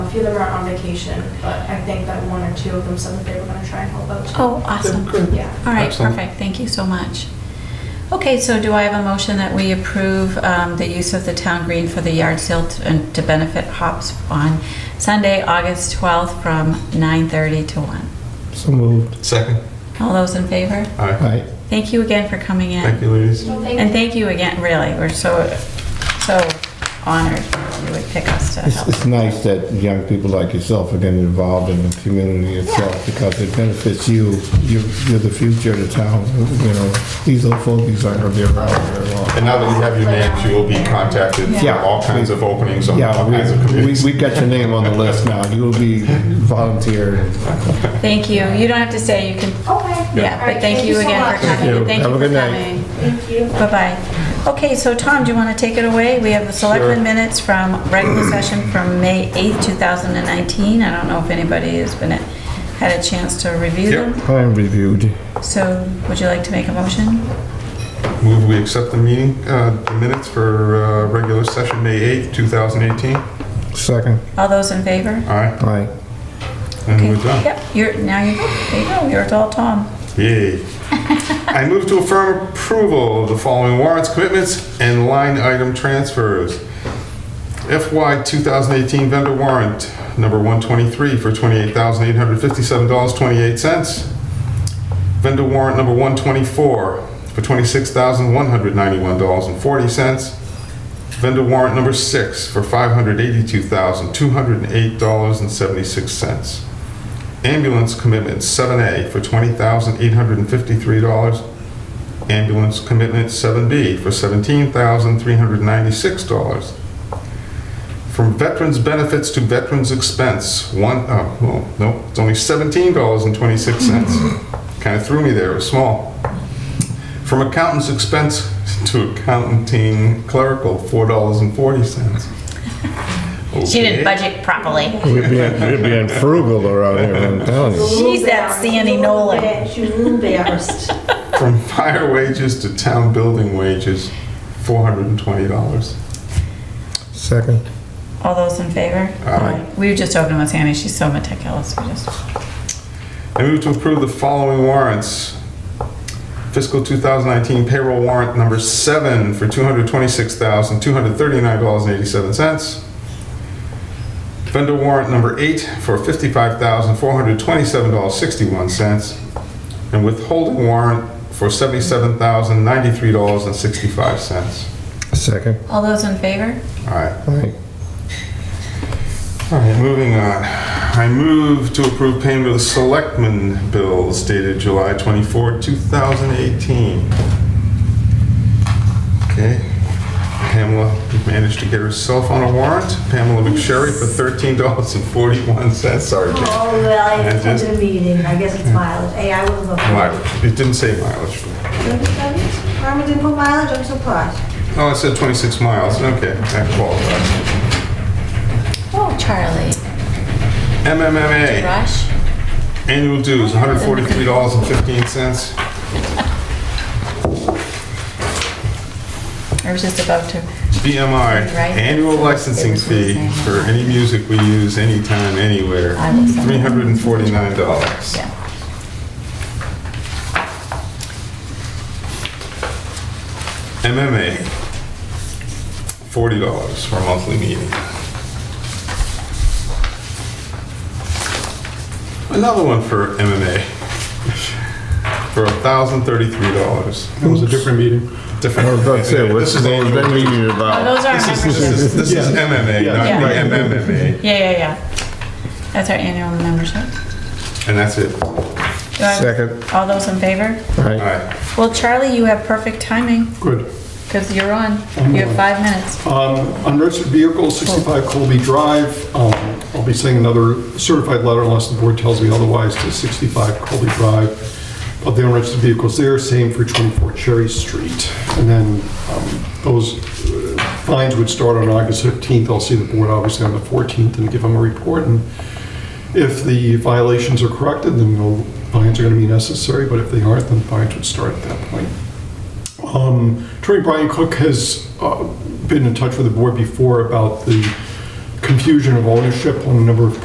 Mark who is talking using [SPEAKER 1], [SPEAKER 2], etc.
[SPEAKER 1] few of them are on vacation, but I think that one or two of them said that they were gonna try and help out. too.
[SPEAKER 2] Oh, awesome.
[SPEAKER 3] Good.
[SPEAKER 1] Yeah.
[SPEAKER 2] All right,
[SPEAKER 3] Excellent.
[SPEAKER 2] perfect, thank you so much. Okay, so do I have a motion that we approve um, the use of the town green for the yard sale to- and to benefit hops on Sunday, August 12th from 9:30 to 1?
[SPEAKER 4] So moved.
[SPEAKER 3] Second.
[SPEAKER 2] All those in favor?
[SPEAKER 3] All right.
[SPEAKER 4] Aye.
[SPEAKER 2] Thank you again for coming in.
[SPEAKER 3] Thank you, ladies.
[SPEAKER 1] Well, thank
[SPEAKER 2] And thank you again, really, we're so, so honored you would pick us to
[SPEAKER 4] It's,
[SPEAKER 2] help.
[SPEAKER 4] it's nice that young people like yourself are getting involved in the community itself because it benefits you. You're, you're the future of the town, you know. These old folks aren't gonna be around very long.
[SPEAKER 3] And now that you have your names, you will be contacted for
[SPEAKER 4] Yeah.
[SPEAKER 3] all kinds of openings on all kinds of
[SPEAKER 4] Yeah, we, we,
[SPEAKER 3] committees.
[SPEAKER 4] we got your name on the list now. You will be volunteered.
[SPEAKER 2] Thank you, you don't have to stay, you can,
[SPEAKER 1] Okay.
[SPEAKER 2] yeah,
[SPEAKER 1] Oh, All right,
[SPEAKER 2] but thank you
[SPEAKER 1] so
[SPEAKER 2] again for
[SPEAKER 1] much.
[SPEAKER 2] coming, and thank
[SPEAKER 4] Have
[SPEAKER 2] you for
[SPEAKER 4] a good night.
[SPEAKER 2] coming.
[SPEAKER 1] Thank you.
[SPEAKER 2] Bye-bye. Okay, so Tom, do you want to take it away? We have the
[SPEAKER 3] Sure.
[SPEAKER 2] selectmen minutes from regular session from May 8th, 2019. I don't know if anybody has been, had a chance to review them.
[SPEAKER 4] I'm reviewed.
[SPEAKER 2] So would you like to make a motion?
[SPEAKER 3] Move we accept the meeting, uh, the minutes for uh, regular session, May 8th, 2018. All
[SPEAKER 4] Second,
[SPEAKER 2] All those in favor?
[SPEAKER 3] right,
[SPEAKER 4] aye.
[SPEAKER 3] and we're
[SPEAKER 2] Okay.
[SPEAKER 3] done.
[SPEAKER 2] Yep, you're, now you, there you go, you're adult Tom.
[SPEAKER 3] Yay. I move to affirm approval of the following warrants, commitments, and line item transfers. FY 2018 vendor warrant number 123 for $28,857.28. Vendor warrant number 124 for $26,191.40. Vendor warrant number 6 for $582,208.76. Ambulance commitment 7A for $20,853. Ambulance commitment 7B for $17,396. From veterans benefits to veterans expense, one, oh, well, no, it's only $17.26. Kind of threw me there, it was small. From accountant's expense to accounting clerical, $4.40.
[SPEAKER 2] She didn't
[SPEAKER 3] Okay.
[SPEAKER 2] budget properly.
[SPEAKER 4] We're being, we're being frugal around here, I'm telling you.
[SPEAKER 2] She's that Sandy Nolan.
[SPEAKER 5] She was a little embarrassed.
[SPEAKER 3] From fire wages to town building wages, $420.
[SPEAKER 4] Second,
[SPEAKER 2] All those in favor?
[SPEAKER 3] Aye.
[SPEAKER 2] We were just opening with Sandy, she's so meticulous, we just,
[SPEAKER 3] I move to approve the following warrants. Fiscal 2019 payroll warrant number seven for $226,239.87. Vendor warrant number eight for $55,427.61. And withholding warrant for $77,093.65.
[SPEAKER 4] second,
[SPEAKER 2] all those in favor?
[SPEAKER 3] All right.
[SPEAKER 4] aye.
[SPEAKER 3] All right, moving on. I move to approve payment of the selectmen bills dated July 24, 2018. Okay, Pamela managed to get herself on a warrant, Pamela McSherry for $13.41. Sorry, Jane.
[SPEAKER 5] Oh, well, I
[SPEAKER 3] And just-
[SPEAKER 5] attended a meeting, I guess it's mileage. Hey, I was looking.
[SPEAKER 3] mileage, it didn't say mileage.
[SPEAKER 5] Carmen didn't put mileage, I'm surprised.
[SPEAKER 3] Oh, it said 26 miles, okay, that qualifies.
[SPEAKER 2] Oh, Charlie,
[SPEAKER 3] MMMA,
[SPEAKER 2] Rush?
[SPEAKER 3] annual dues, $143.15.
[SPEAKER 2] I was just about to.
[SPEAKER 3] BMI,
[SPEAKER 2] Right.
[SPEAKER 3] annual licensing fee for any music we use anytime, anywhere, $349.
[SPEAKER 2] Yeah.
[SPEAKER 3] MMA, $40 for a monthly meeting. Another one for MMA, for $1,033.
[SPEAKER 6] It was a different meeting.
[SPEAKER 3] Different.
[SPEAKER 4] I was about to say, what's
[SPEAKER 3] This is
[SPEAKER 4] the name
[SPEAKER 3] annual.
[SPEAKER 4] that meeting
[SPEAKER 2] Oh,
[SPEAKER 4] about?
[SPEAKER 2] those are our
[SPEAKER 3] This
[SPEAKER 2] memberships.
[SPEAKER 3] is this is
[SPEAKER 6] Yeah.
[SPEAKER 3] MMA,
[SPEAKER 2] Yeah.
[SPEAKER 3] not the
[SPEAKER 2] Yeah,
[SPEAKER 3] MMMA,
[SPEAKER 2] yeah, yeah. That's our annual membership.
[SPEAKER 3] and that's it. All
[SPEAKER 2] Do I-
[SPEAKER 4] Second,
[SPEAKER 2] All those in favor?
[SPEAKER 4] aye.
[SPEAKER 3] right.
[SPEAKER 2] Well, Charlie, you have perfect timing,
[SPEAKER 6] Good.
[SPEAKER 2] because you're on.
[SPEAKER 6] I'm
[SPEAKER 2] You have
[SPEAKER 6] on.
[SPEAKER 2] five minutes.
[SPEAKER 6] Um, Unregistered vehicle, 65 Colby Drive. Um, I'll be sending another certified letter unless the board tells me otherwise to 65 Colby Drive. Of the unregistered vehicles there, same for 24 Cherry Street. And then um, those uh, fines would start on August 15th. I'll see the board obviously on the 14th and give them a report. And if the violations are corrected, then no fines are going to be necessary, but if they aren't, then fines would start at that point. Um, Attorney Brian Cook has uh, been in touch with the board before about the confusion of ownership on a number of